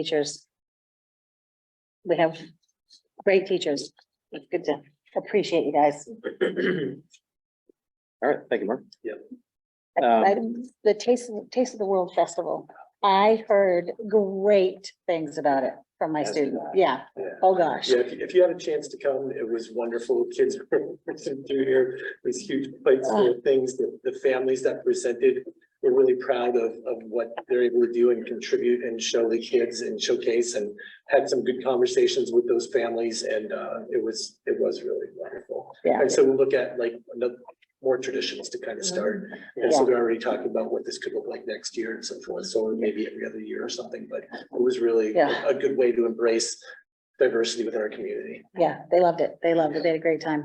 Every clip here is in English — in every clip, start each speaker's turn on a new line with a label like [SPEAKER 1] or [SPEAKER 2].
[SPEAKER 1] teachers. We have great teachers. It's good to appreciate you guys.
[SPEAKER 2] All right, thank you, Mark. Um,
[SPEAKER 1] I-
[SPEAKER 2] Yep.
[SPEAKER 1] The Taste, of- Taste of the World Festival, I heard great things about it from my
[SPEAKER 3] As did
[SPEAKER 1] students.
[SPEAKER 3] I.
[SPEAKER 1] Yeah,
[SPEAKER 3] Yeah.
[SPEAKER 1] oh gosh.
[SPEAKER 3] Yeah, if you, if you had a chance to come, it was wonderful. Kids were through here, these huge plates full of things that the families that presented. were really proud of, of what they're able to do and contribute and show the kids and showcase and had some good conversations with those families and, uh, it was, it was really wonderful.
[SPEAKER 1] Yeah.
[SPEAKER 3] And so we'll look at like another, more traditions to kind of start. And so they're already talking about what this could look like next year and so forth. So maybe every other year or something, but it was really
[SPEAKER 1] Yeah.
[SPEAKER 3] a a good way to embrace diversity within our community.
[SPEAKER 1] Yeah, they loved it. They loved it. They had a great time.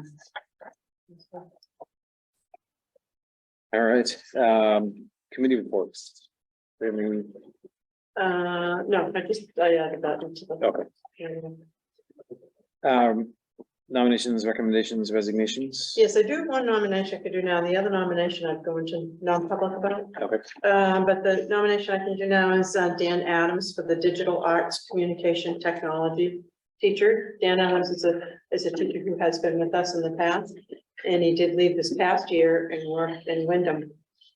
[SPEAKER 2] All right, um, committee reports. I mean,
[SPEAKER 4] Uh, no, I just, I added that into the.
[SPEAKER 2] okay, um, nominations, recommendations, resignations.
[SPEAKER 4] Yes, I do have one nomination I could do now. The other nomination I'd go into non-public about.
[SPEAKER 2] Okay,
[SPEAKER 4] Um, but the nomination I can do now is uh, Dan Adams for the Digital Arts Communication Technology teacher. Dan Adams is a, is a teacher who has been with us in the past, and he did leave this past year and worked in Wyndham.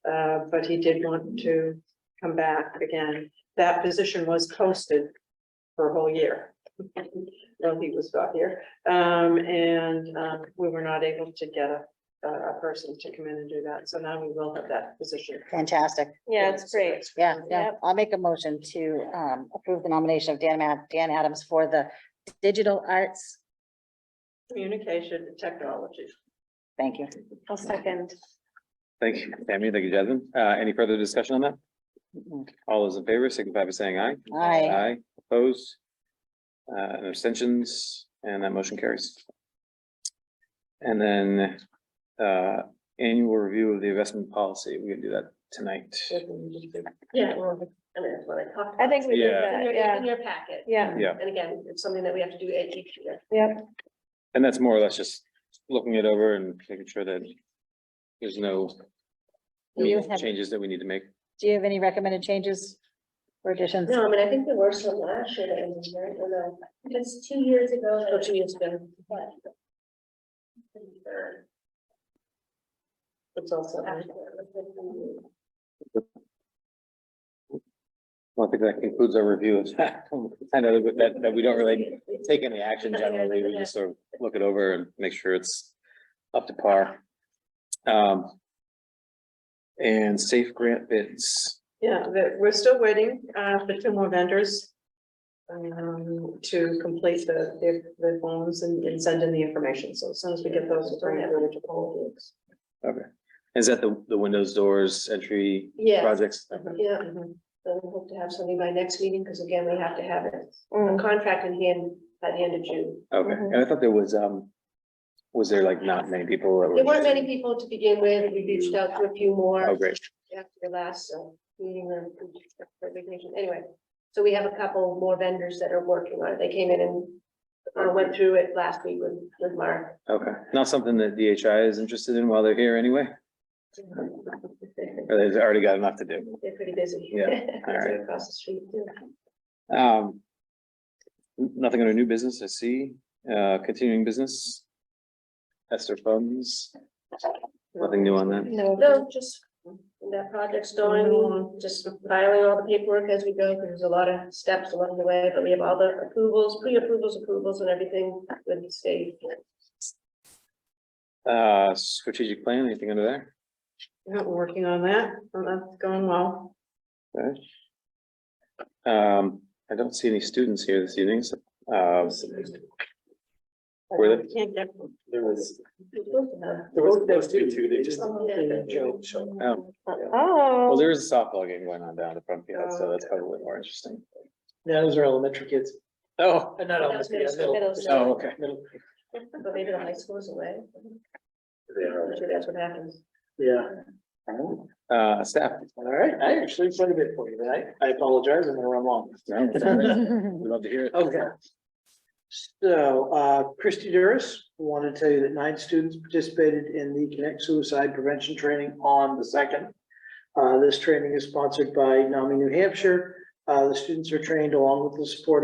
[SPEAKER 4] Uh, but he did want to come back again. That position was posted for a whole year. Well, he was not here, um, and, um, we were not able to get a, a a person to come in and do that, so now we will have that position.
[SPEAKER 1] Fantastic.
[SPEAKER 5] Yeah, it's great.
[SPEAKER 1] Yeah, yeah.
[SPEAKER 5] Yep.
[SPEAKER 1] I'll make a motion to um approve the nomination of Dan Ma- Dan Adams for the Digital Arts.
[SPEAKER 4] Communication and technology.
[SPEAKER 1] Thank you.
[SPEAKER 5] I'll second.
[SPEAKER 2] thank you, Tammy, thank you, Jasmine. Uh, any further discussion on that? All those in favor, signify by saying aye.
[SPEAKER 1] Aye.
[SPEAKER 2] Aye, opposed. Uh, and abstentions, and that motion carries. And then, uh, annual review of the investment policy, we can do that tonight.
[SPEAKER 4] Yeah.
[SPEAKER 6] I mean, that's what I talked.
[SPEAKER 5] I think we did
[SPEAKER 2] Yeah.
[SPEAKER 6] about. In
[SPEAKER 5] that,
[SPEAKER 6] your-
[SPEAKER 5] yeah,
[SPEAKER 6] In your packet.
[SPEAKER 5] yeah,
[SPEAKER 2] Yeah.
[SPEAKER 6] And again, it's something that we have to do each year.
[SPEAKER 5] yep,
[SPEAKER 2] And that's more or less just looking it over and making sure that there's no
[SPEAKER 1] Do you
[SPEAKER 2] meaningful
[SPEAKER 1] have-
[SPEAKER 2] changes that we need to make.
[SPEAKER 1] Do you have any recommended changes or additions?
[SPEAKER 6] No, I mean, Um, I think there were some last year that was very, well, no, uh, it's two years ago. Or Oh, two years ago. but- It's also.
[SPEAKER 2] Well, I think that concludes our review of that. I know that- that, that we don't really take any action generally, we just sort of look it over and make sure it's up to par. Um. And safe grant bids.
[SPEAKER 4] Yeah, that, we're still waiting, uh, for two more vendors. Um, to complete the, the, the forms and, and send in the information, so as soon as we get those, we'll bring it over to Paul.
[SPEAKER 2] Okay. Is that the, the windows, doors, entry
[SPEAKER 6] Yeah,
[SPEAKER 2] projects?
[SPEAKER 6] yeah. So we hope to have something by next meeting, because again, we have to have it, a
[SPEAKER 5] Mm.
[SPEAKER 6] contract in hand by the end of June.
[SPEAKER 2] Okay, and I thought there was, um, was there like not many people that were?
[SPEAKER 6] There weren't many people to begin with. We reached out to a few more.
[SPEAKER 2] Oh, great.
[SPEAKER 6] after the last uh, meeting or resignation, anyway. So we have a couple more vendors that are working on it. They came in and uh, went through it last week with, with Mark.
[SPEAKER 2] Okay, not something that DHI is interested in while they're here anyway,
[SPEAKER 6] They're
[SPEAKER 2] or they've already got enough to do.
[SPEAKER 6] pretty busy.
[SPEAKER 2] Yeah, all
[SPEAKER 6] They're
[SPEAKER 2] right.
[SPEAKER 6] Across the street. too.
[SPEAKER 2] Um. n- Nothing under new business, I see, uh, continuing business. Esther funds. Nothing new on that.
[SPEAKER 5] no,
[SPEAKER 6] No, just that project's going, just filing all the paperwork as we go. 'cause There's a lot of steps along the way, but we have all the approvals, pre-approvals, approvals and everything with the state.
[SPEAKER 2] Uh, strategic plan, anything under there?
[SPEAKER 4] Yeah, we're working on that, and that's going well.
[SPEAKER 2] Okay. Um, I don't see any students here this evening, so, uh, Really?
[SPEAKER 4] We Can't get them.
[SPEAKER 3] There was,
[SPEAKER 6] Well,
[SPEAKER 3] there was supposed to be two, they just.
[SPEAKER 6] Oh,
[SPEAKER 2] oh,
[SPEAKER 3] um,
[SPEAKER 2] well,
[SPEAKER 5] oh,
[SPEAKER 2] there is a softball game going on down at the front field, so that's probably more interesting.
[SPEAKER 3] Yeah, those are elementary kids. Uh,
[SPEAKER 2] Oh,
[SPEAKER 3] Not
[SPEAKER 6] elementary, yeah, middle- Middle school.
[SPEAKER 2] oh, okay.
[SPEAKER 6] But maybe the high school's away.
[SPEAKER 3] They are,
[SPEAKER 6] I'm sure that's what happens.
[SPEAKER 3] yeah.
[SPEAKER 2] Uh, staff.
[SPEAKER 3] All right, I actually played a bit for you tonight. I apologize, I'm gonna run long.
[SPEAKER 2] No, it's all right. We'd love to hear it.
[SPEAKER 7] Okay. So, uh, Christy Duris, wanted to tell you that nine students participated in the Connect Suicide Prevention Training on the second. Uh, this training is sponsored by NAMI New Hampshire
[SPEAKER 3] Uh, the students are trained along with the support of